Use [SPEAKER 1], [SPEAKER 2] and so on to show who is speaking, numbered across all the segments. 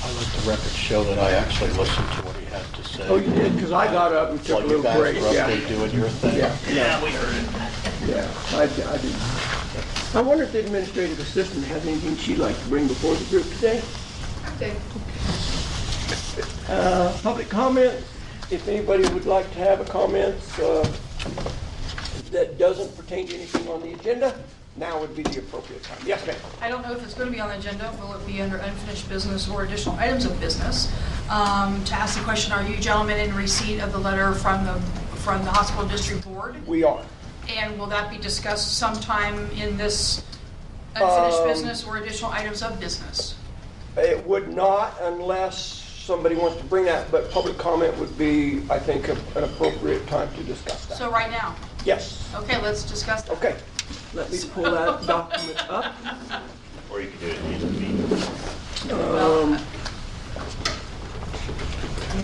[SPEAKER 1] I let the record show that I actually listened to what he had to say.
[SPEAKER 2] Oh, you did, because I got up and took
[SPEAKER 1] While
[SPEAKER 2] a
[SPEAKER 1] you
[SPEAKER 2] little
[SPEAKER 1] guys
[SPEAKER 2] break,
[SPEAKER 1] were up
[SPEAKER 2] yeah.
[SPEAKER 1] there doing your thing.
[SPEAKER 2] Yeah,
[SPEAKER 3] Yeah, we heard it.
[SPEAKER 2] yeah, I, I did. I wonder if the administrative assistant has anything she'd like to bring before the group today? Uh, Public comments, if anybody would like to have a comment uh, that doesn't pertain to anything on the agenda, now would be the appropriate time. Yes, ma'am?
[SPEAKER 4] I don't know if it's going to be on the agenda, will it be under unfinished business or additional items of business? Um, To ask the question, are you gentlemen in receipt of the letter from the, from the hospital district board?
[SPEAKER 2] We are.
[SPEAKER 4] And will that be discussed sometime in this unfinished
[SPEAKER 2] Um,
[SPEAKER 4] business or additional items of business?
[SPEAKER 2] It would not unless somebody wants to bring that, but public comment would be, I think, a- an appropriate time to discuss that.
[SPEAKER 4] So right now,
[SPEAKER 2] Yes,
[SPEAKER 4] okay, let's discuss that.
[SPEAKER 2] okay. Let me pull that document up.
[SPEAKER 3] Or you could do it in the meeting.
[SPEAKER 4] Well,
[SPEAKER 2] Um,
[SPEAKER 4] uh,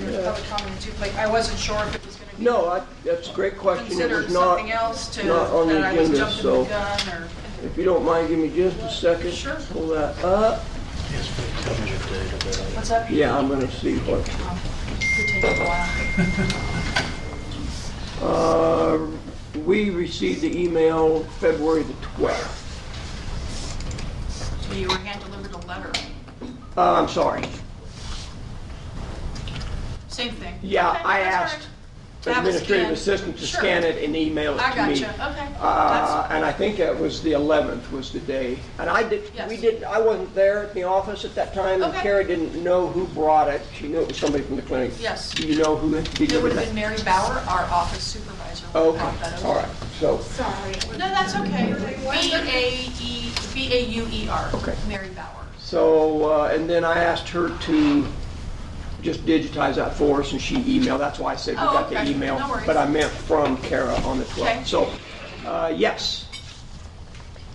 [SPEAKER 4] there's public comment too, Like, I wasn't sure if it was going to be
[SPEAKER 2] No, I- that's a great question. It
[SPEAKER 4] considered
[SPEAKER 2] was not,
[SPEAKER 4] something else to,
[SPEAKER 2] not on the
[SPEAKER 4] that I was
[SPEAKER 2] agenda,
[SPEAKER 4] jumping
[SPEAKER 2] so-
[SPEAKER 4] the gun or...
[SPEAKER 2] if you don't mind, give me just a second.
[SPEAKER 4] Sure.
[SPEAKER 2] Pull that up.
[SPEAKER 1] Yes, but tell me the date of it.
[SPEAKER 4] What's up?
[SPEAKER 2] Yeah, I'm gonna see what,
[SPEAKER 4] Could take a while.
[SPEAKER 2] uh, we received the email February the 12th.
[SPEAKER 4] So you were hand delivered a letter.
[SPEAKER 2] Uh, I'm sorry.
[SPEAKER 4] Same thing.
[SPEAKER 2] Yeah,
[SPEAKER 4] Okay,
[SPEAKER 2] I
[SPEAKER 4] that's all right.
[SPEAKER 2] asked
[SPEAKER 4] That was
[SPEAKER 2] administrative
[SPEAKER 4] scanned.
[SPEAKER 2] assistant to
[SPEAKER 4] Sure.
[SPEAKER 2] scan it and email it
[SPEAKER 4] I
[SPEAKER 2] to me.
[SPEAKER 4] gotcha. Okay.
[SPEAKER 2] Uh,
[SPEAKER 4] That's-
[SPEAKER 2] and I think that was the 11th was the day. And I did, we
[SPEAKER 4] Yes.
[SPEAKER 2] did, I wasn't there at the office at that time. and
[SPEAKER 4] Okay.
[SPEAKER 2] Kara didn't know who brought it. She knew it was somebody from the clinic.
[SPEAKER 4] Yes.
[SPEAKER 2] Do you know who
[SPEAKER 4] It would
[SPEAKER 2] delivered
[SPEAKER 4] have
[SPEAKER 2] that?
[SPEAKER 4] been Mary Bauer, our office supervisor. who
[SPEAKER 2] Okay,
[SPEAKER 4] brought that over.
[SPEAKER 2] all right, so,
[SPEAKER 4] No, that's okay. E, B-A-E, B-A-U-E-R.
[SPEAKER 2] Okay.
[SPEAKER 4] Mary Bauer.
[SPEAKER 2] so, uh, and then I asked her to just digitize that for us, and she emailed, that's why I said we
[SPEAKER 4] Oh,
[SPEAKER 2] got the
[SPEAKER 4] okay,
[SPEAKER 2] email.
[SPEAKER 4] no worries.
[SPEAKER 2] But I meant from Kara on the
[SPEAKER 4] Okay.
[SPEAKER 2] 12th. So, uh, yes. Go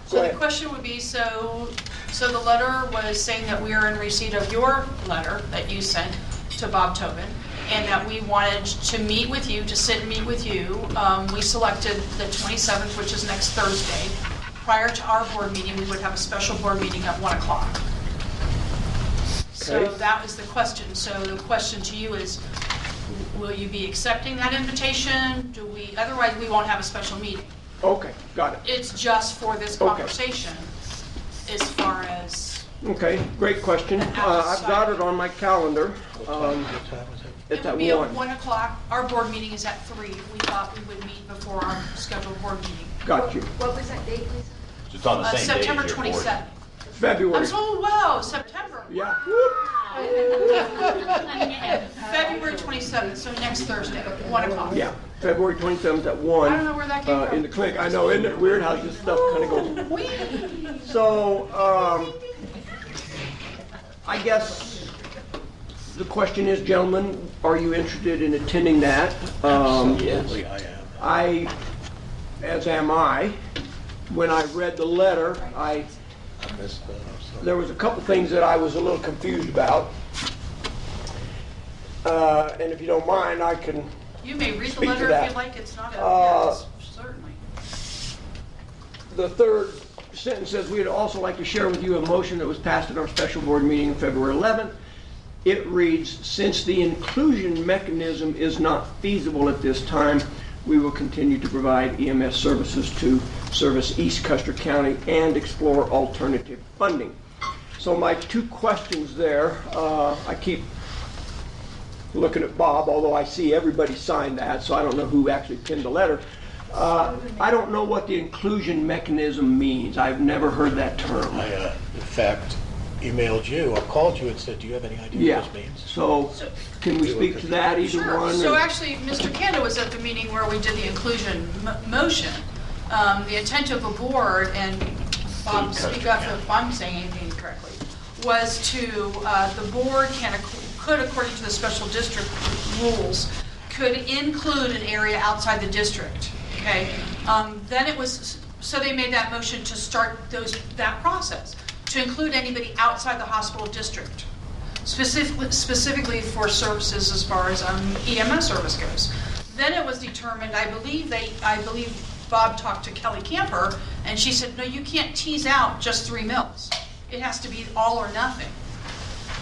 [SPEAKER 4] So the
[SPEAKER 2] ahead.
[SPEAKER 4] question would be, so, so the letter was saying that we are in receipt of your letter that you sent to Bob Tobin, and that we wanted to meet with you, to sit and meet with you. Um, We selected the 27th, which is next Thursday. Prior to our board meeting, we would have a special board meeting at 1 o'clock. So
[SPEAKER 2] Okay.
[SPEAKER 4] that was the question. So the question to you is, will you be accepting that invitation? Do we, otherwise, we won't have a special meeting
[SPEAKER 2] Okay, got it.
[SPEAKER 4] it's just for this
[SPEAKER 2] Okay.
[SPEAKER 4] conversation as far as,
[SPEAKER 2] Okay, great question.
[SPEAKER 4] And
[SPEAKER 2] Uh, I've got
[SPEAKER 4] outside.
[SPEAKER 2] it on my calendar.
[SPEAKER 1] What time-
[SPEAKER 2] Um,
[SPEAKER 1] what time was it?
[SPEAKER 4] it
[SPEAKER 2] It's at
[SPEAKER 4] would be at
[SPEAKER 2] one.
[SPEAKER 4] one o'clock. Our board meeting is at three. We thought we would meet before our scheduled board meeting.
[SPEAKER 2] Got you.
[SPEAKER 5] What was that date, Lisa?
[SPEAKER 3] It's on the
[SPEAKER 4] Uh,
[SPEAKER 3] Oh, same day as your
[SPEAKER 4] September
[SPEAKER 3] board.
[SPEAKER 4] twenty-seventh. I'm
[SPEAKER 2] February.
[SPEAKER 4] so, oh, wow, September.
[SPEAKER 2] Yeah.
[SPEAKER 4] February twenty-seventh, so next Thursday, one o'clock.
[SPEAKER 2] Yeah, February 27th at one.
[SPEAKER 4] I don't know where that came
[SPEAKER 2] uh, In
[SPEAKER 4] from.
[SPEAKER 2] the clinic. I know, isn't it weird how this stuff kind of goes? So, um, I guess the question is, gentlemen, are you interested in attending that? Um,
[SPEAKER 1] Absolutely, I am.
[SPEAKER 2] I, as am I, when I read the letter, I
[SPEAKER 1] I missed that, I'm sorry.
[SPEAKER 2] there was a couple things that I was a little confused about. Uh, And if you don't mind, I can,
[SPEAKER 4] You may read the
[SPEAKER 2] Speak to
[SPEAKER 4] letter
[SPEAKER 2] that.
[SPEAKER 4] if you'd like. It's not
[SPEAKER 2] Uh,
[SPEAKER 4] a, certainly.
[SPEAKER 2] the third sentence says, "We'd also like to share with you a motion that was passed at our special board meeting on February 11th." It reads, "Since the inclusion mechanism is not feasible at this time, we will continue to provide EMS services to service East Custer County and explore alternative funding." So my two questions there, uh, I keep looking at Bob, although I see everybody signed that, so I don't know who actually penned the letter. Uh, I don't know what the inclusion mechanism means. I've never heard that term.
[SPEAKER 1] I, uh, in fact, emailed you or called you and said, do you have any idea
[SPEAKER 2] Yeah,
[SPEAKER 1] what this means?
[SPEAKER 2] so can we speak to that, either
[SPEAKER 4] Sure.
[SPEAKER 2] one?
[SPEAKER 4] So
[SPEAKER 2] or-
[SPEAKER 4] actually, Mr. Kanda was at the meeting where we did the inclusion mo- motion. Um, The intent of the board, and Bob, speak up if I'm saying anything incorrectly, was to, uh, the board can, ac- could, according to the special district rules, could include an area outside the district, okay? Um, Then it was, so they made that motion to start those, that process, to include anybody outside the hospital district specifically, specifically for services as far as um, EMS service goes. Then it was determined, I believe they, I believe Bob talked to Kelly Camper, and she said, no, you can't tease out just three mills. It has to be all or nothing.